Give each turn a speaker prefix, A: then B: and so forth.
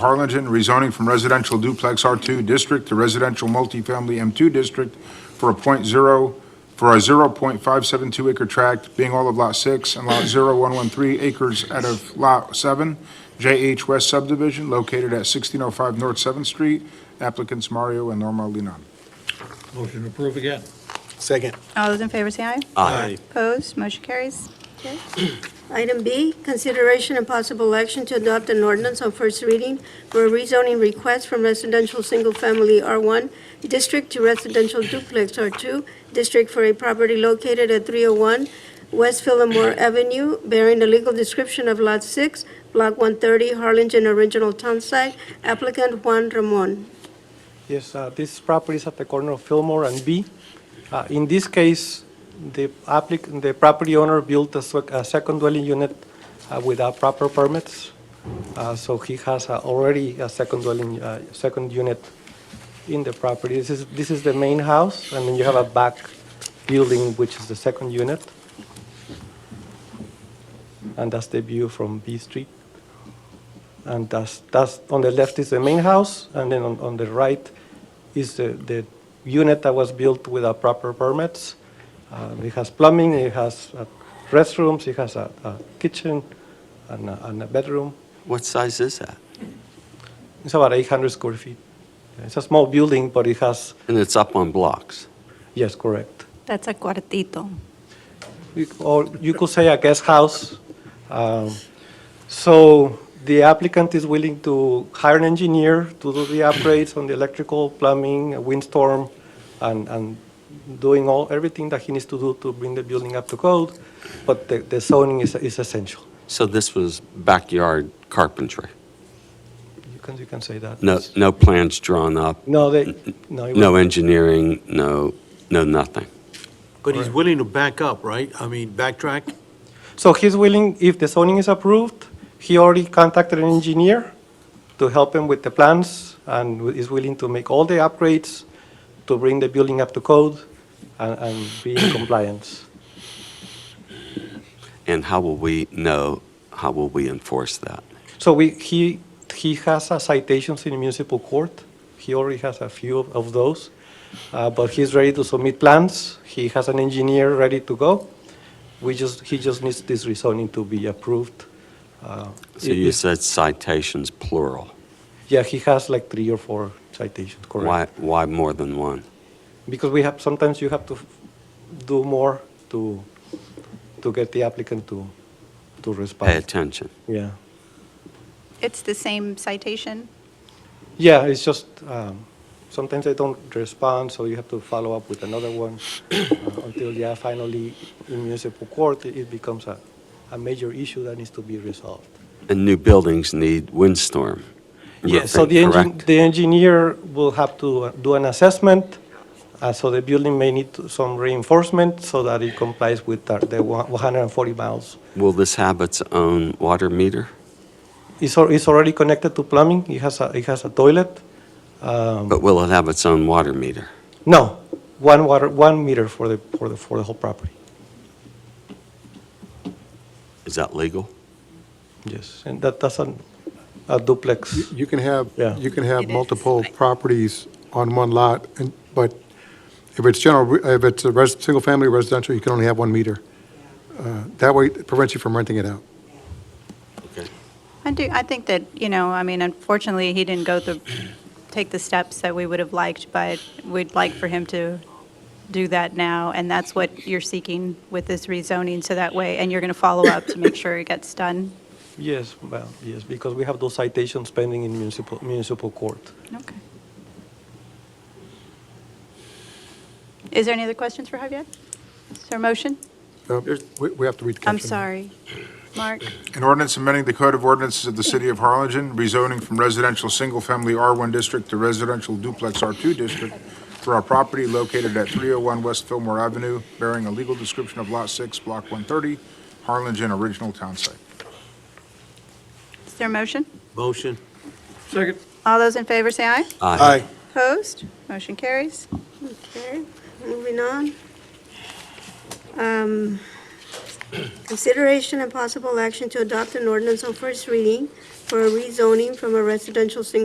A: Harlingen, rezoning from residential duplex R2 district to residential multifamily M2 district for a point zero, for a 0.572 acre tract, being all of Lot 6 and Lot 0113 acres out of Lot 7, JH West subdivision located at 1605 North 7th Street. Applicants Mario and Norma Linon.
B: Motion to approve again.
C: Second.
D: All those in favor say aye. Opposed, motion carries.
E: Item B, consideration and possible action to adopt an ordinance on first reading for a rezoning request from residential single-family R1 district to residential duplex R2 district for a property located at 301 West Fillmore Avenue, bearing the legal description of Lot 6, Block 130, Harlingen Original Townsite, applicant Juan Ramon.
F: Yes, uh, this property is at the corner of Fillmore and B. Uh, In this case, the applic, the property owner built a sec- a second dwelling unit uh, without proper permits, Uh, so he has uh, already a second dwelling, uh, second unit in the property. This is, this is the main house, and then you have a back building, which is the second unit. And that's the view from B Street. And that's, that's, on the left is the main house, and then on, on the right is the, the unit that was built without proper permits. Uh, It has plumbing, it has uh, restrooms, it has a, a kitchen and a, and a bedroom.
C: What size is that?
F: It's about 800 square feet. It's a small building, but it has,
C: And it's up on blocks.
F: yes, correct.
D: That's a cuartito.
F: You- Or you could say a guest house. Um, So the applicant is willing to hire an engineer to do the upgrades on the electrical, plumbing, uh, windstorm, and, and doing all, everything that he needs to do to bring the building up to code, but the- the zoning is, is essential.
C: So this was backyard carpentry.
F: You can, you can say that.
C: No,
F: yes.
C: no plans drawn up,
F: No, they, no. it
C: no
F: was-
C: engineering, no, no nothing.
B: But he's willing to back up, right? I mean, backtrack?
F: So he's willing, if the zoning is approved, he already contacted an engineer to help him with the plans and wi- is willing to make all the upgrades to bring the building up to code and, and be in compliance.
C: And how will we know, how will we enforce that?
F: So we, he, he has uh, citations in municipal court. He already has a few of- of those, uh, but he's ready to submit plans. He has an engineer ready to go. We just, he just needs this rezoning to be approved. Uh,
C: So
F: it-
C: you
F: it's-
C: said citations plural.
F: Yeah, he has like three or four citations, correct?
C: Why, why more than one?
F: Because we have, sometimes you have to f- do more to, to get the applicant to, to
C: Pay
F: respond.
C: attention.
F: Yeah.
D: It's the same citation.
F: Yeah, it's just, um, sometimes they don't respond, so you have to follow up with another one uh, until, yeah, finally in municipal court, it- it becomes a, a major issue that needs to be resolved.
C: And new buildings need windstorm.
F: Yeah, so the,
C: roofing,
F: engin-
C: correct?
F: the engineer will have to uh, do an assessment, uh, so the building may need to- some reinforcement so that it complies with the- the one- 140 miles.
C: Will this have its own water meter?
F: It's, al- it's already connected to plumbing, it has a, it has a toilet. Um,
C: But will it have its own water meter?
F: No, one water, one meter for the, for the, for the whole property,
C: Is that legal?
F: yes. And that, that's an- a duplex,
G: You can have,
F: Yeah.
G: you can have
D: It is.
G: multiple properties on one lot, and, but if it's general, if it's a res, single-family residential, you can only have one meter. Uh, That way it prevents you from renting it out.
C: Okay.
D: I do, I think that, you know, I mean, unfortunately, he didn't go through, take the steps that we would have liked, but we'd like for him to do that now, and that's what you're seeking with this rezoning, so that way, and you're going to follow up to make sure it gets done.
F: yes, well, yes, because we have those citations pending in municipal, municipal court.
D: Okay. Is there any other questions for Javier? Is there a motion?
G: Uh, We, we have to read the
D: I'm
G: caption.
D: sorry. Mark?
A: An ordinance amending the Code of Ordinances of the City of Harlingen, rezoning from residential single-family R1 district to residential duplex R2 district for a property located at 301 West Fillmore Avenue, bearing a legal description of Lot 6, Block 130, Harlingen Original Town Site.
D: Is there a motion?
B: Motion.
F: Second.
D: All those in favor say aye.
C: Aye.
D: Opposed? Motion carries.
E: Okay, moving on. Um, Consideration and possible action to adopt an ordinance on first reading for a rezoning from a residential single